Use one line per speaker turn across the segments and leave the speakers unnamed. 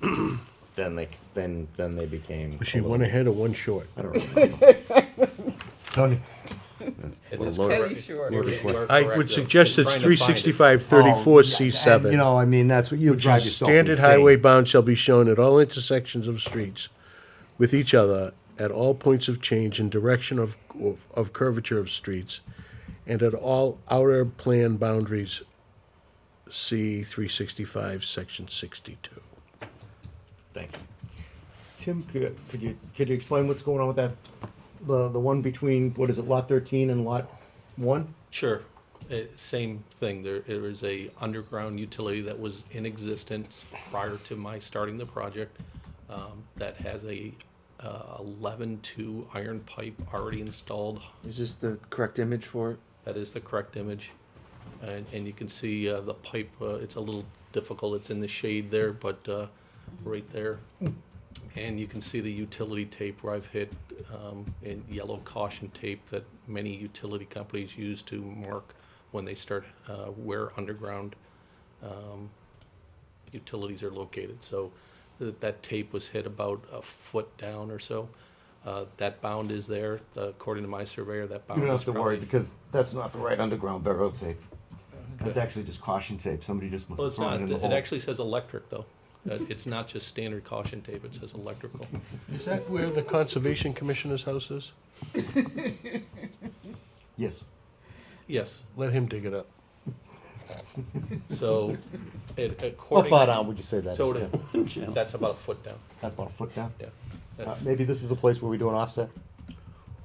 then they then then they became.
Was she
a little-
one ahead or one short?
I don't remember.
Tony?
It
We're
is
loaded.
correct.
short.
We're- we're
I
correct.
would suggest
I'm
it's
trying to find
365
it.
Oh,
34
and,
C7.
You know, I mean, that's what you drive yourself
Standard
insane.
highway bound shall be shown at all intersections of streets with each other, at all points of change and direction of, of curvature of streets, and at all outer plan boundaries, C three sixty-five, section sixty-two.
Thank you. Tim, could, could you could you explain what's going on with that? The the one between what is it, lot thirteen and lot one?
Sure. Uh, Same thing. There, there is a underground utility that was in existence prior to my starting the project um, that has a uh, 11-2 iron pipe already installed.
Is this the correct image for it?
That is the correct image. And, and you can see uh, the pipe, uh, it's a little difficult. It's in the shade there, but uh, right there. And you can see the utility tape where I've hit um, in yellow caution tape that many utility companies use to mark when they start uh, where underground um, utilities are located. So that, that tape was hit about a foot down or so. Uh, that bound is there. According to my surveyor, that bound
You don't
is
have to worry
probably-
because that's not the right underground barrel tape. That's actually just caution tape. Somebody just must
Well,
have
it's
thrown
not,
it in the
it
hole.
actually says electric, though. Uh, It's not just standard caution tape, it says electrical.
Is that where the Conservation Commissioner's house is?
yes.
Yes,
Let him dig it up.
so it,
How
according.
far down would you say that is,
So
Tim?
it- that's about a foot down,
That's about a foot down.
yeah.
Uh,
That's-
maybe this is a place where we do an offset.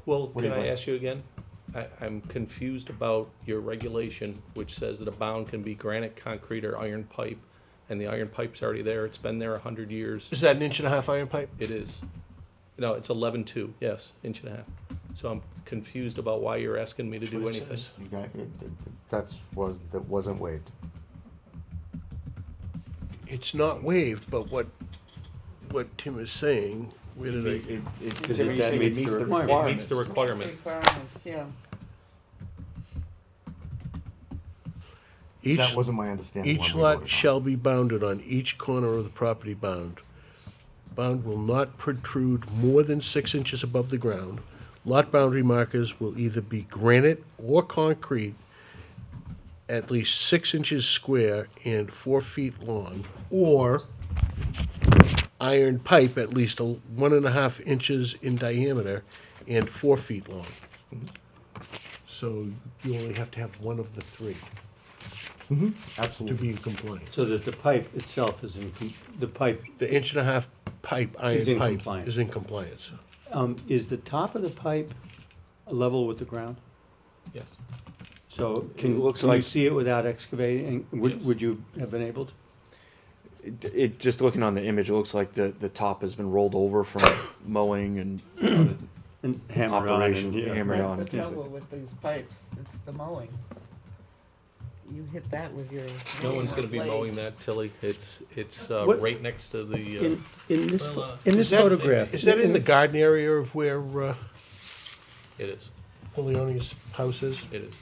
Well,
do
can
you
I
think?
ask you again? I, I'm confused about your regulation, which says that a bound can be granite, concrete, or iron pipe. And the iron pipe's already there, it's been there a hundred years.
Is that an inch and a half iron pipe?
It is. No, it's eleven two, yes, inch and a half. So I'm confused about why you're asking me to do
what it
anything.
says.
You guys, it- it- that's was that wasn't waived.
It's not waived, but what, what Tim is saying, where did I?
Is it that meets the
It meets the requirement.
Requirements, yeah.
Each-
that wasn't my understanding. when
Each
we voted on
lot
it.
shall be bounded on each corner of the property bound. Bound will not protrude more than six inches above the ground. Lot boundary markers will either be granite or concrete, at least six inches square and four feet long, or iron pipe at least a- one and a half inches in diameter and four feet long. So you only have to have one of the three to
Absolutely.
be in compliance.
So that the pipe itself is in, com- the pipe,
The inch and a half pipe,
Is in
iron pipe,
compliance.
is in compliance.
um, is the top of the pipe level with the ground?
Yes.
So
It
can,
looks
can you
like-
see it without excavating?
Yes.
Would, would you have been able to?
It, it- just looking on the image, it looks like the, the top has been rolled over from mowing and
And hammer on it
operation
and- yeah.
hammered on.
That's the
and things like
trouble with these pipes, it's the mowing. You hit that with your.
No one's gonna be
blade.
mowing that, Tilly. It's, it's uh,
What-
right next to the, uh,
In, in this,
Well, uh,
in this photograph.
Is that in the garden area of where uh,
it is,
Leone's house is?
it is.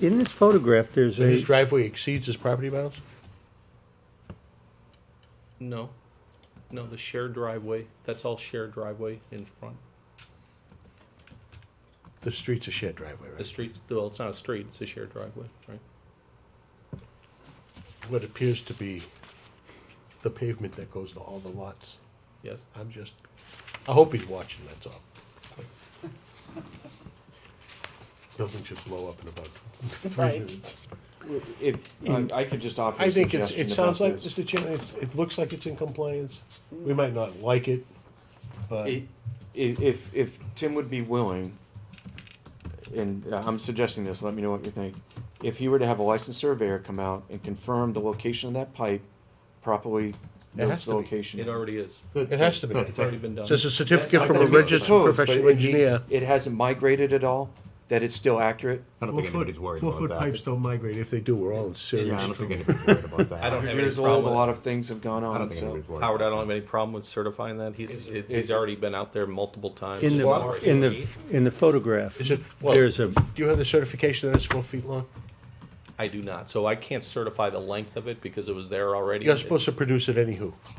In this photograph, there's
So his
a,
driveway exceeds his property bounds?
No, no, the shared driveway, that's all shared driveway in front.
The street's a shared driveway,
The
right?
street, well, it's not a street, it's a shared driveway, right?
What appears to be the pavement that goes to all the lots.
Yes.
I'm just, I hope he's watching, that's all. Nothing should blow up in about three
Right.
minutes.
that. If, I, I could just offer
I
a
think it's,
suggestion
it
the
sounds
best
like,
is-
Mr. Chairman, it's- it looks like it's in compliance. We might not like it, but.
I- i- If, if Tim would be willing, and uh, I'm suggesting this, let me know what you think. If he were to have a licensed surveyor come out and confirm the location of that pipe, properly
It
notes
has
the
to be.
location.
It already is.
It has to be.
It's already been done.
Says a certificate
I
from a
think it's
registered
proposed, but
professional
it needs-
engineer.
It hasn't migrated at all, that it's still accurate.
I don't think anybody's worried about
Four-foot
that.
pipes don't migrate. If they do, we're all in
Yeah, I
serious
don't think
trouble.
anybody's worried about that.
I don't have any
Years old, a
problem
lot
with,
of things have gone
I don't
on,
think
so.
anybody's worried.
Howard, I
about
don't have any problem with certifying that. He's, it-
it-
he's already been out there multiple times.
in
It's
the,
already-
in the, in the photograph,
Is it, well, do
there's a,
you have the certification that it's four feet long?
I do not, so I can't certify the length of it because it was there already.
You're
It's-
supposed to produce it anywho.